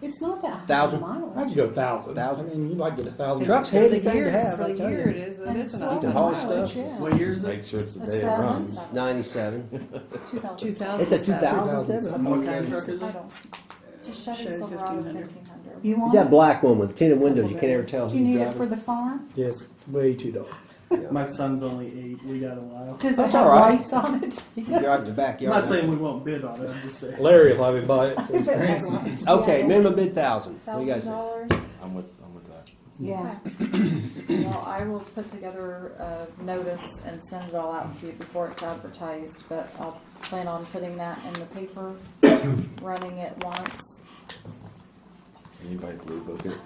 It's not that high a Thousand. mileage. How'd you go thousand? Thousand. I mean, you might get a thousand. Truck's For the heavy thing year- to have, For I the tell year, it you. is, it And is it's an awful the haul mileage, stuff. yeah. What year is it? Make sure it's the A day it seven? runs. Ninety-seven. Two thousand. Two thousand. It's a two thousand 2007. seven. What kind of truck is it? So Chevy Chevy Silverado 1500. fifteen hundred. You want That it? black one with tinted windows, you can't ever tell Do you who's need it for driving. the farm? Yes, way too dark. Yeah. My son's only eight. We got a while. Does it That's have all right. lights on it? You can drive the I'm backyard. not saying we won't bid on it. I'm just saying. Larry will have him buy it. So If it's it had crazy. lights, Okay, yeah. minimum bid thousand. What do you guys Thousand think? dollars. I'm with, I'm with that. Yeah. Well, I will put together a notice and send it all out to you before it's advertised, but I'll plan on putting that in the paper, running it once. Anybody blue book it?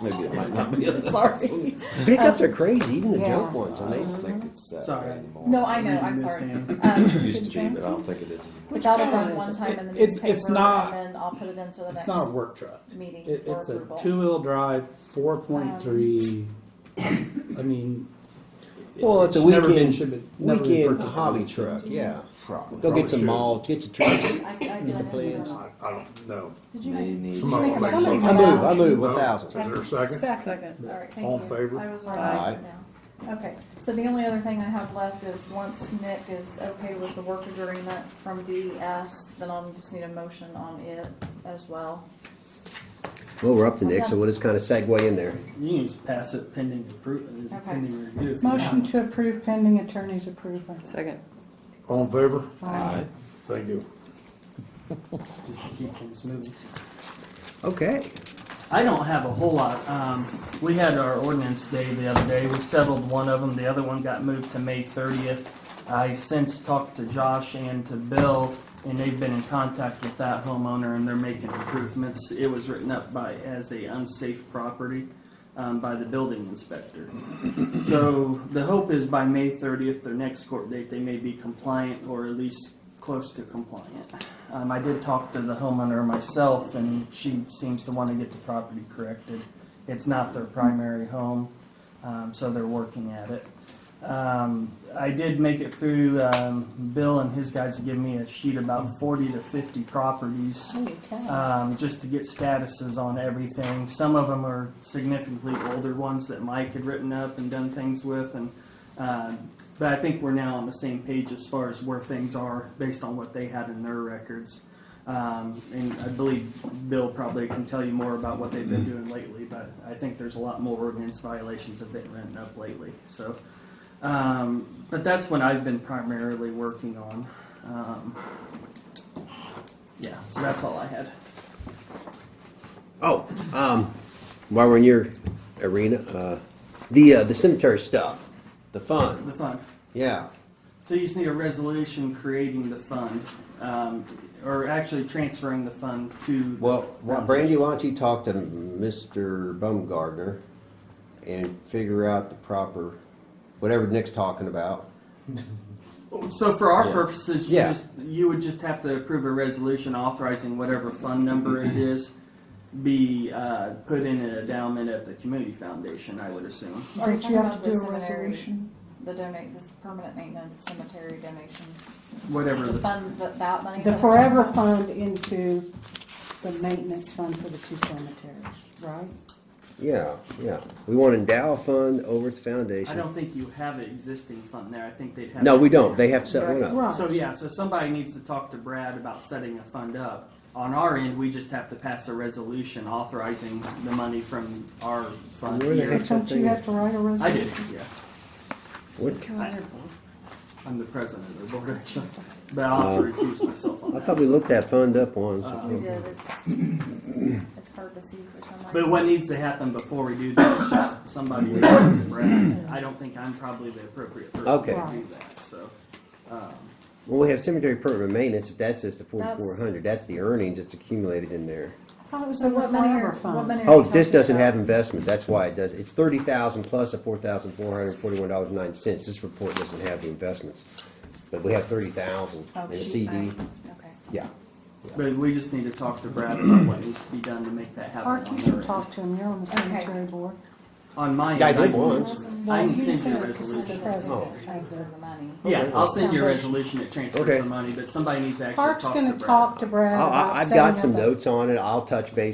Maybe it might not be. a- Sorry. Pickups are crazy, even the Yeah. junk I ones. I mean, don't think it's that Sorry. way anymore. No, I know, I'm Reading this sorry. in. It Um, used to be, but I don't think it is anymore. But that'll car run one is it? time in the It's- it's newspaper not- and then I'll put it into the It's not a next work truck. meeting It, for it's a approval. two-wheel drive, four point three. I mean, it- Well, it's a never been weekend, should be- never been weekend purchased by hobby Lincoln. truck, yeah. Probably. Go Probably get some should. mulch, get some trees. I, I did I miss it or plans. not? I don't know. Did you They make? need. Somebody make a Like, summary. I move, I move one No. Is thousand. there a second? Second. All right, All thank in you. favor? I was Aye. right now. Okay, so the only other thing I have left is once Nick is okay with the work agreement from DES, then I'll just need a motion on it as well. Well, we're up to Nick, so we'll just kind of segue in there. You can just pass it pending approval, Okay. pending review. It's Motion not- to approve pending attorney's approval. Second. All in favor? Aye. Thank you. Just to keep things moving. Okay. I don't have a whole lot. Um, we had our ordinance day the other day. We settled one of them. The other one got moved to May 30th. I since talked to Josh and to Bill, and they've been in contact with that homeowner, and they're making improvements. It was written up by as a unsafe property um, by the building inspector. So the hope is by May 30th, their next court date, they may be compliant or at least close to compliant. Um, I did talk to the homeowner myself, and she seems to want to get the property corrected. It's not their primary home, um, so they're working at it. Um, I did make it through. Um, Bill and his guys have given me a sheet about 40 to 50 properties Holy cow. um, just to get statuses on everything. Some of them are significantly older ones that Mike had written up and done things with, and uh, but I think we're now on the same page as far as where things are based on what they had in their records. Um, and I believe Bill probably can tell you more about what they've been doing lately, but I think there's a lot more ordinance violations have been written up lately. So, um, but that's what I've been primarily working on. Um, yeah, so that's all I had. Oh, um, while we're in your arena, uh, the, uh, the cemetery stuff, the The fund, fund. yeah. So you just need a resolution creating the fund, um, or actually transferring the fund to. the Well, why- foundation. Brandy, why don't you talk to Mr. Baumgardner and figure out the proper, whatever Nick's talking about. So for our Yeah. purposes, you Yeah. just, you would just have to approve a resolution authorizing whatever fund number it is be, uh, put in an endowment at the community foundation, I would assume. Are you Don't you have talking to do about a the seminary? resolution? The donate, this permanent maintenance cemetery donation, Whatever the the, fund, that, that money. The that I'm forever talking about? fund into the maintenance fund for the two cemeteries, right? Yeah, yeah. We want to endow a fund over at the I foundation. don't think you have an existing fund there. I think they'd have. No, we don't. They have to set one up. Right. So yeah, so somebody needs to talk to Brad about setting a fund up. On our end, we just have to pass a resolution authorizing the money from our fund Where the here. heck's that Don't you thing have to write a I did, resolution? yeah. What- I'm the president of the board, actually. But I'll have to recuse myself on I that. thought we looked that fund up once. Oh, We did, it's, it's hard to see for some reason. But what needs to happen before we do that is just somebody reach out to Brad. I don't think I'm probably the appropriate person Okay. to do that, so. um, Well, we have cemetery permanent maintenance. If that's just the forty-four hundred, that's the earnings that's accumulated in there. I thought it was So in the what money forever are, what money fund. are Oh, you this talking doesn't about? have investment, that's why it does, it's thirty thousand plus a four thousand four hundred forty-one dollars and nine cents, this report doesn't have the investments. But we have thirty thousand Oh, in a sheet CD, bank. Okay. yeah, But we just need to talk to Brad about what needs to be done to make that happen. Art, on you their should end. talk to him, you're on the Okay. cemetery board. on my end. Yeah, I I- did once. I can Well, send you a it to the resolution. president of the- Transfer the money. Yeah, Okay. I'll send you a resolution that transfers Okay. the money, but somebody needs to actually talk Park's to gonna Brad. talk to Brad I- about I, I've setting got up some a- notes on it. I'll touch base